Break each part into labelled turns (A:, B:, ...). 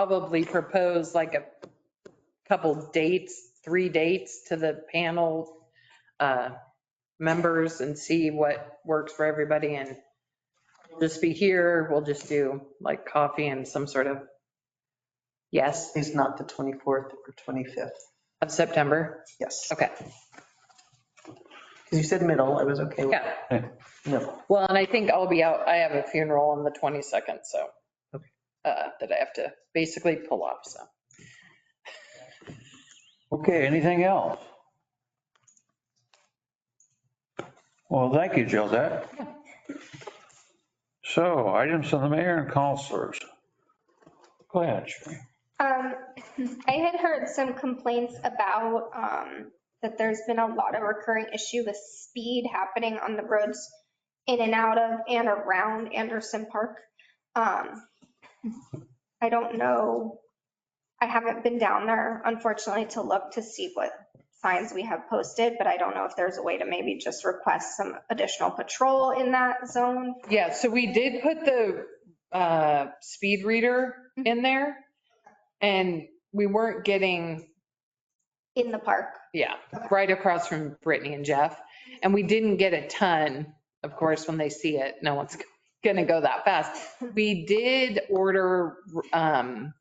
A: probably propose like a couple dates, three dates to the panel uh, members and see what works for everybody and we'll just be here, we'll just do like coffee and some sort of, yes,
B: Is not the 24th or 25th.
A: of September.
B: Yes.
A: Okay,
B: Because you said middle, I was okay with
A: yeah.
B: middle.
A: Well, and I think I'll be out, I have a funeral on the 22nd, so, uh, that I have to basically pull off, so.
C: Okay, anything else? Well, thank you, Josette. So items from the mayor and counselors. Go ahead, Sherry.
D: Um, I had heard some complaints about, um, that there's been a lot of recurring issue with speed happening on the roads in and out of and around Anderson Park. Um, I don't know. I haven't been down there unfortunately to look to see what signs we have posted, but I don't know if there's a way to maybe just request some additional patrol in that zone.
A: Yeah, so we did put the uh, speed reader in there and we weren't getting,
D: In the park.
A: yeah, right across from Brittany and Jeff. And we didn't get a ton. Of course, when they see it, no one's going to go that fast. We did order, um,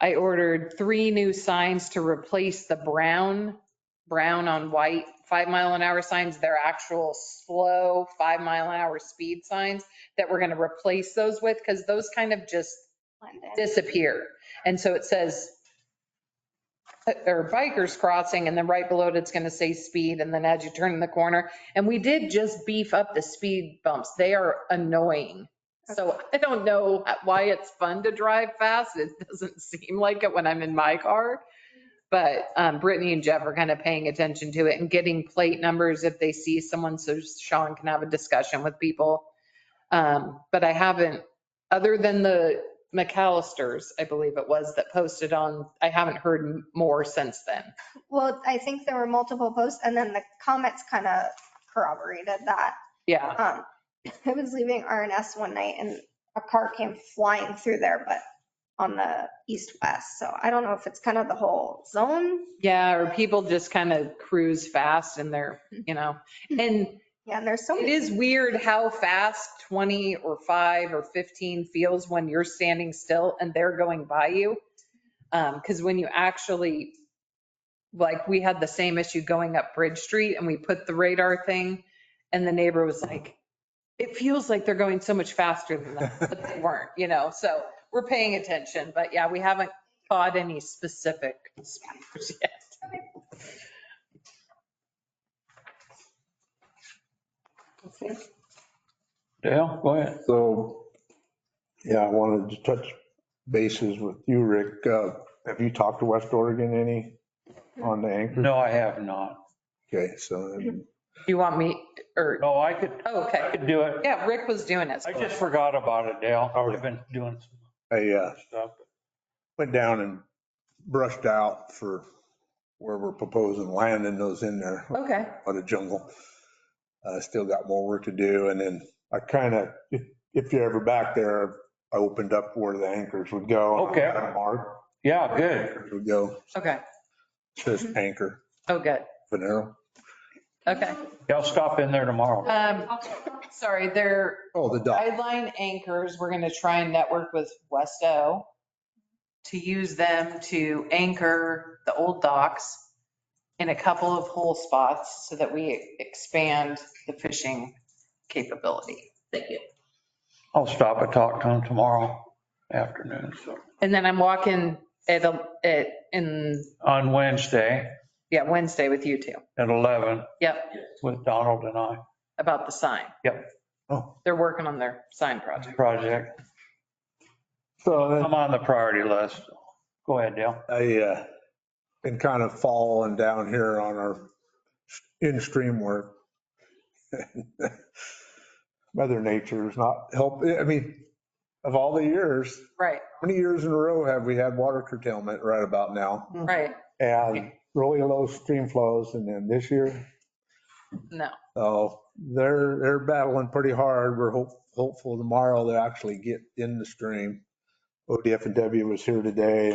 A: I ordered three new signs to replace the brown, brown on white, five mile an hour signs. They're actual slow five mile an hour speed signs that we're going to replace those with because those kind of just
D: London.
A: disappear. And so it says, uh, or bikers crossing, and then right below it, it's going to say speed, and then as you turn in the corner. And we did just beef up the speed bumps. They are annoying. So I don't know why it's fun to drive fast. It doesn't seem like it when I'm in my car. But um, Brittany and Jeff are kind of paying attention to it and getting plate numbers if they see someone, so Sean can have a discussion with people. Um, But I haven't, other than the McAllister's, I believe it was, that posted on, I haven't heard m- more since then.
D: Well, I think there were multiple posts and then the comments kind of corroborated that.
A: Yeah,
D: Um, I was leaving RNS one night and a car came flying through there, but on the east-west. So I don't know if it's kind of the whole zone.
A: yeah, or people just kind of cruise fast and they're, you know, and
D: Yeah, and there's so
A: it
D: many.
A: is weird how fast 20 or 5 or 15 feels when you're standing still and they're going by you. Because when you actually, like, we had the same issue going up Bridge Street and we put the radar thing and the neighbor was like, it feels like they're going so much faster than that, but they weren't, you know, so we're paying attention. But yeah, we haven't caught any specific speeders yet.
C: Dale, go ahead.
E: So, yeah, I wanted to touch bases with you, Rick. Uh, Have you talked to West Oregon any on the anchor?
C: No, I have not.
E: Okay, so um,
A: Do you want me, or, oh,
C: No, I could, I
A: okay,
C: could do it.
A: yeah, Rick was doing it.
C: I just forgot about it, Dale. I've been doing some
E: I uh,
C: stuff.
E: went down and brushed out for where we're proposing landing those in there.
A: Okay.
E: out of jungle. Uh, still got more work to do. And then I kind of, if, if you're ever back there, I opened up where the anchors would go.
C: Okay.
E: Mark
C: Yeah, good. Mm-hmm.
E: would go,
A: Okay,
E: says anchor,
A: oh, good,
E: Venero.
A: okay.
C: Yeah, I'll stop in there tomorrow.
A: Um, sorry, their
E: Oh, the dock.
A: guideline anchors, we're gonna try and network with Westo to use them to anchor the old docks in a couple of hole spots so that we expand the fishing capability. Thank you.
C: I'll stop and talk to him tomorrow afternoon. So
A: And then I'm walking at, a- at, in,
C: on Wednesday
A: yeah, Wednesday with you two.
C: at 11
A: Yep,
C: with Donald and I.
A: about the sign.
E: Oh,
A: They're working on their sign project.
C: Project.
E: So then
C: I'm on the priority list. Go ahead, Dale.
E: I, uh, been kind of falling down here on our in-stream work. Mother Nature is not help, I mean, of all the years,
A: Right,
E: how many years in a row have we had water curtailment right about now?
A: right.
E: and really low stream flows. And then this year,
A: No,
E: oh, they're, they're battling pretty hard. We're hope- hopeful tomorrow they'll actually get in the stream. ODF and W was here today